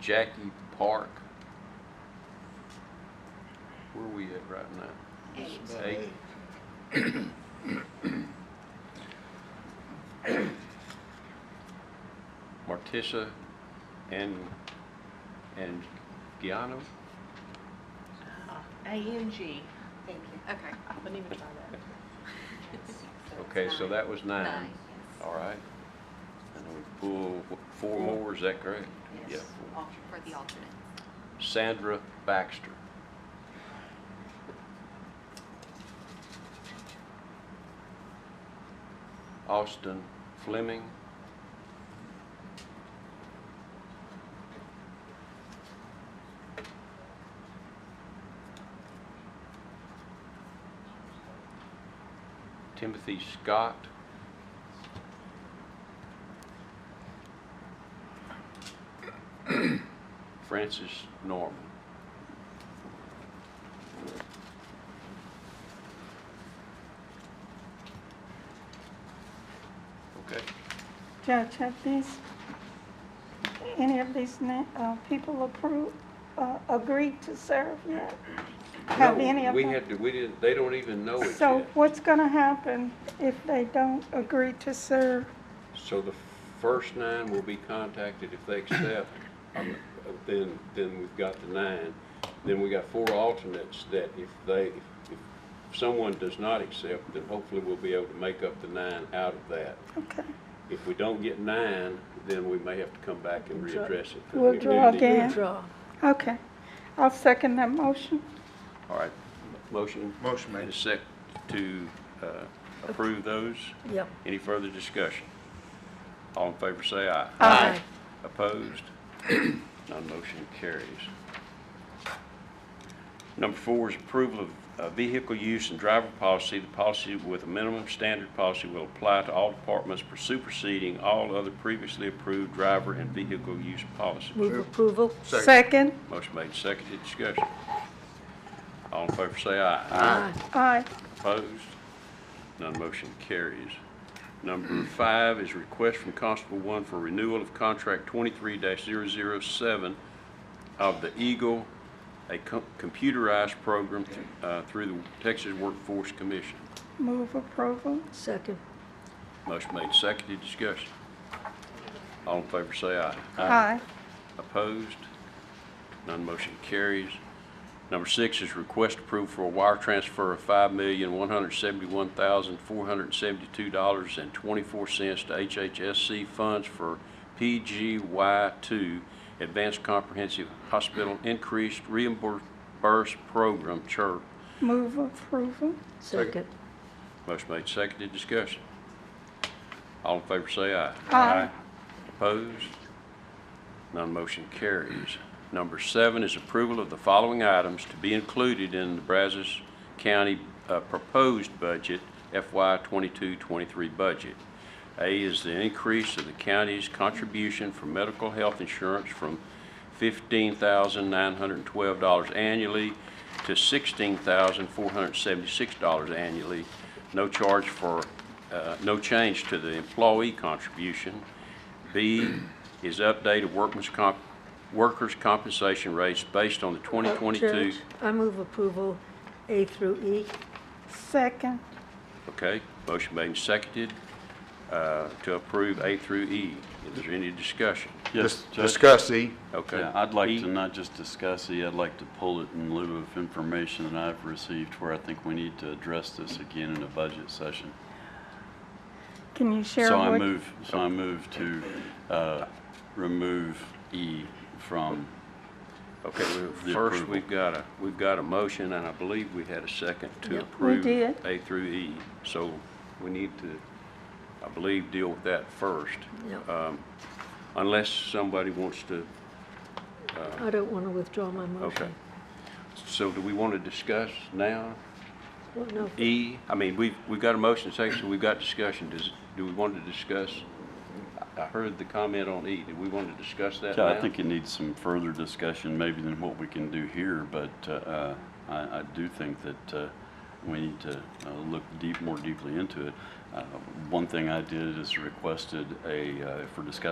Jackie Park. Where are we at right now? Eight. Eight. Martissa and, and Giano? A N G. Thank you. Okay. I wouldn't even try that. Okay, so that was nine. Oh, yes. All right. And then we pull wh- four more, is that correct? Yeah. Yes. four. For the alternate. Sandra Baxter. Austin Fleming. Timothy Scott. Francis Norman. Okay. Judge, have these, any of these na- uh, people approved, uh, agreed to serve yet? Have No, any of We them? had to, we didn't, they don't even know it So yet. what's gonna happen if they don't agree to serve? So the first nine will be contacted if they accept, um, then, then we've got the nine. Then we got four alternates that if they, if someone does not accept, then hopefully we'll be able to make up the nine out of that. Okay, If we don't get nine, then we may have to come back and readdress it. We'll draw again. Withdraw. okay. I'll second that motion. All right, motion. Motion And a made. sec to uh, approve those. Yep. Any further discussion? All in favor say aye. Aye. Opposed? None motion carries. Number four is approval of uh, vehicle use and driver policy. The policy with a minimum standard policy will apply to all departments for superseding all other previously approved driver and vehicle use policies. Move approval. Second, Motion made, seconded, discussion. All in favor say aye. Aye. aye. Opposed? None motion carries. Number five is request from Constable One for renewal of contract 23-007 of the Eagle, a co- computerized program th- uh, through the Texas Workforce Commission. Move approval, Second. Motion made, seconded, discussion. All in favor say aye. aye. Opposed? None motion carries. Number six is request approval for a wire transfer of $5,171,472.24 to HHSC funds for PGY2 Advanced Comprehensive Hospital Increased Reimbursed Program, CHIRP. Move approval, Second. Motion made, seconded, discussion. All in favor say aye. Aye. Opposed? None motion carries. Number seven is approval of the following items to be included in the Brazos County uh, proposed budget FY 22-23 budget. A is the increase of the county's contribution for medical health insurance from $15,912 annually to $16,476 annually. No charge for, uh, no change to the employee contribution. B is update of workman's comp, workers' compensation rates based on the Uh, 2022. Judge, I move approval A through E. second, Okay, motion made and seconded uh, to approve A through E. Is there any discussion? Dis- Yes, Judge. Discuss E. Okay. Yeah, I'd like E. to not just discuss E, I'd like to pull it in lieu of information that I've received where I think we need to address this again in a budget session. can you share So I what? move, so I move to uh, remove E from, Okay, well, The first, approval. we've got a, we've got a motion, and I believe we had a second to Yep. We approve did. A through E. So we need to, I believe, deal with that first, Yep. unless somebody wants to, I don't want to withdraw my okay. motion. So do we want to discuss now? Well, no. E, I mean, we've, we've got a motion and second, so we've got discussion. Does, do we want to discuss? I- I heard the comment on E. Do we want to discuss that now? Yeah, I think it needs some further discussion maybe than what we can do here, but uh, I, I do think that uh, we need to uh, look deep, more deeply into it. Uh, One thing I did is requested a, uh, if we're discussing